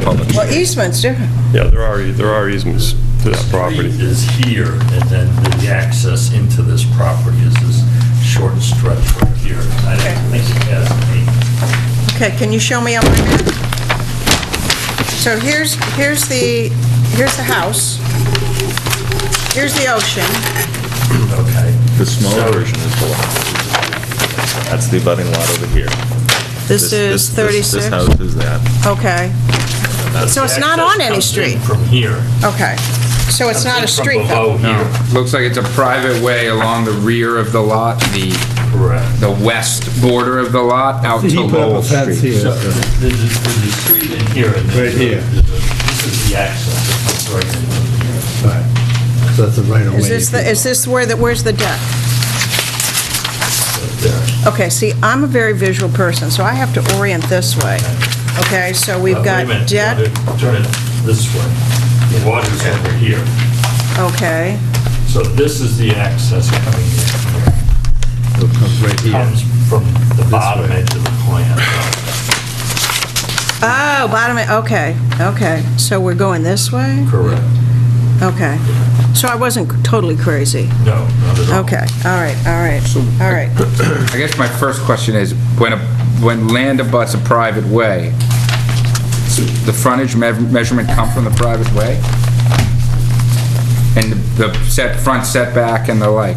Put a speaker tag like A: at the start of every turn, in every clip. A: wetlands.
B: Well, e- easement's different.
A: Yeah, there are, there are easements to that property.
C: Street is here, and then the access into this property is this short stretch right here. I don't think it has any,
B: Okay, can you show me on my map? So here's, here's the, here's the house. Here's the ocean.
C: okay.
D: The smaller
C: So-
D: version is below. That's the abutting lot over here.
B: This is
D: this-
B: 36?
D: This house is that.
B: Okay, So it's not on any
C: Access comes in
B: street?
C: From here.
B: okay. So it's not a
C: Comes in from
B: street though?
C: below here.
E: Looks like it's a private way along the rear of the lot, the,
C: Correct.
E: the west border of the lot out to
F: He put up
E: Lowell
F: a fence
E: Street.
F: here.
C: So there's, there's a street in here, and
F: Right
C: there's a-
F: here.
C: there's a- this is the access, that comes right in.
F: Right. So that's a right of way.
B: Is this, the- is this where, the where's the deck? Okay, see, I'm a very visual person, so I have to orient this way. Okay, so we've
C: Uh, wait a
B: got
C: minute,
B: deck.
C: you gotta Turn it this way. The water's over here.
B: Okay,
C: So this is the access coming in here.
F: It comes right here.
C: Comes from the bottom
F: way.
C: edge of the plant.
B: oh, bottom, okay, okay, so we're going this way?
C: Correct.
B: Okay, so I wasn't totally crazy.
C: No, not at all.
B: Okay, all right, all right, all right.
F: uh,
E: I guess my first question is, when, a when land abuts a private way, the frontage me- measurement come from the private way? And the set, front setback and the like?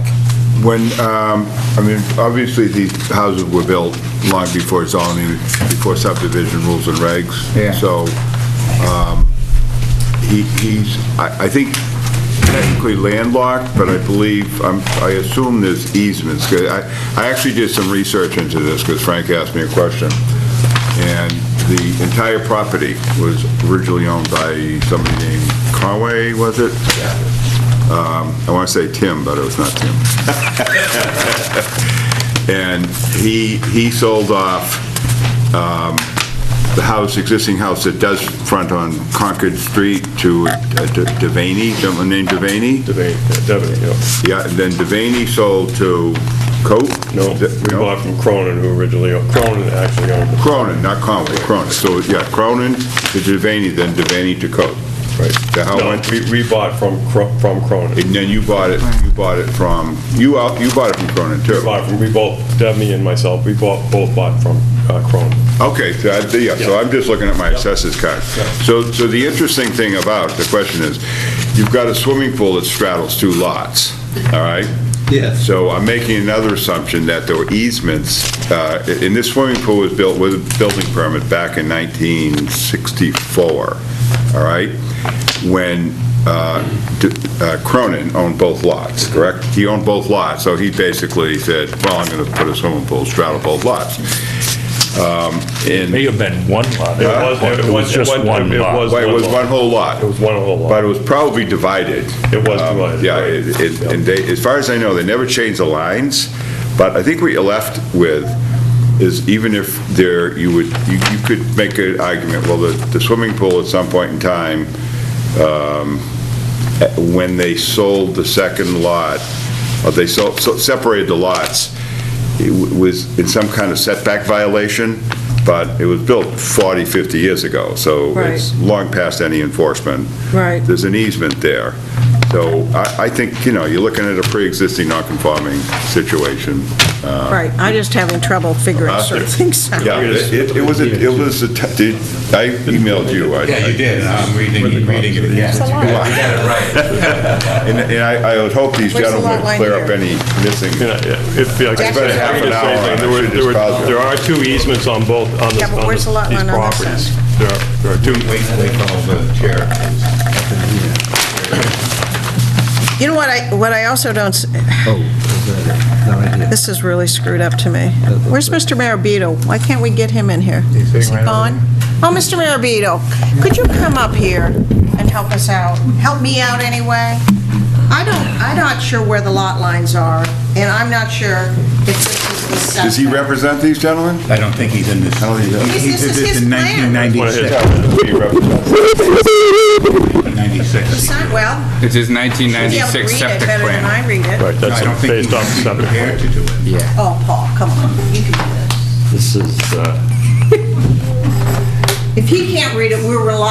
G: When, um, I mean, obviously, these houses were built long before zoning, before subdivision rules and regs.
E: Yeah.
G: So um, he- he's, I I think technically landlocked, but I believe, I'm- I assume there's easements. 'Cause I I actually did some research into this because Frank asked me a question. And the entire property was originally owned by somebody named Conway, was it? Um, I want to say Tim, but it was not Tim. And he, he sold off um, the house, existing house that does front on Concord Street to uh, to Devaney, someone named Devaney.
A: Devaney, yeah.
G: Yeah, and then Devaney sold to Cope?
A: No, we bought from Cronin, who originally, owned- Cronin actually owned it.
G: Cronin, not Conway, Cronin. So, yeah, Cronin to Devaney, then Devaney to Cope. Right. The how it
A: No,
G: went
A: we, we bought from, Cro- from Cronin.
G: And then you bought it, you bought it from, you out, you bought it from Cronin too?
A: We bought from, we both, Devaney and myself, we bought, both bought from uh, Cronin.
G: Okay, so I- yeah, so I'm just looking at my assessors card. So, so the interesting thing about, the question is, you've got a swimming pool that straddles two lots, all right?
F: Yes.
G: So I'm making another assumption that there were easements, uh, and this swimming pool was built with a building permit back in 1964, all right? When uh, D- uh, Cronin owned both lots, correct? He owned both lots, so he basically said, well, I'm going to put a swimming pool straddle both lots. Um, And
H: May have been one lot.
A: It was- it
H: It was
A: was-
H: just
A: it was-
H: one
A: it
H: lot.
A: was-
G: Well, it was one whole lot.
A: It was one whole lot.
G: But it was probably divided.
A: It was
G: Um,
A: divided,
G: Yeah,
A: right.
G: it- it- and they, as far as I know, they never changed the lines, but I think what you're left with is even if there, you would, you you could make an argument, well, the the swimming pool at some point in time, um, eh, when they sold the second lot, or they sold, so- separated the lots, it w- was in some kind of setback violation, but it was built 40, 50 years ago, so
B: Right.
G: it's long past any enforcement.
B: Right.
G: There's an easement there. So I, I think, you know, you're looking at a pre-existing non-conforming situation. Uh,
B: Right, I'm just having trouble figuring
G: Uh,
B: certain things out.
G: Yeah, it it was, a- it was, a te- did- I emailed you.
I: Yeah, you did, I'm reading, reading it again.
B: It's a lot.
I: You got it right.
G: And and I I would hope these
B: Where's the
G: gentlemen
B: lot
G: would
B: line
G: clear up
B: here?
G: any missing.
A: You know, If, yeah, I guess
B: Actually,
A: I
B: half
A: could
B: an
A: just
G: hour,
A: say,
G: I
A: there were,
G: should
A: there were,
G: just pause it.
A: there are two easements on both, on this,
B: Yeah, but
A: on
B: where's
A: this-
B: the lot
A: these
B: line on this
A: properties. There are, there are two,
I: Wait, wait, hold the chair.
B: You know what I, what I also don't, s-
F: Oh, is that it? No, right here.
B: this is really screwed up to me. Where's Mr. Marabito? Why can't we get him in here? Is he gone? Oh, Mr. Marabito, could you come up here and help us out? Help me out anyway? I don't, I'm not sure where the lot lines are, and I'm not sure if this is the setback.
G: Does he represent these gentlemen?
I: I don't think he's in this.
B: This
I: uh, He he
B: is
I: did this
B: his
I: in
B: plan.
I: 1996.
G: He represents-
I: 96.
B: Son- Well,
E: It's his
B: you'll be able to
E: 1996
B: read it
E: septic
B: better than I
E: plan.
B: read it.
I: I
A: right,
I: don't
A: that's
I: think
A: based
I: he's
A: off seven.
I: prepared to do it.
B: Oh, Paul, come on, you can do this.
C: This is, uh,
B: If he can't read it, we're relying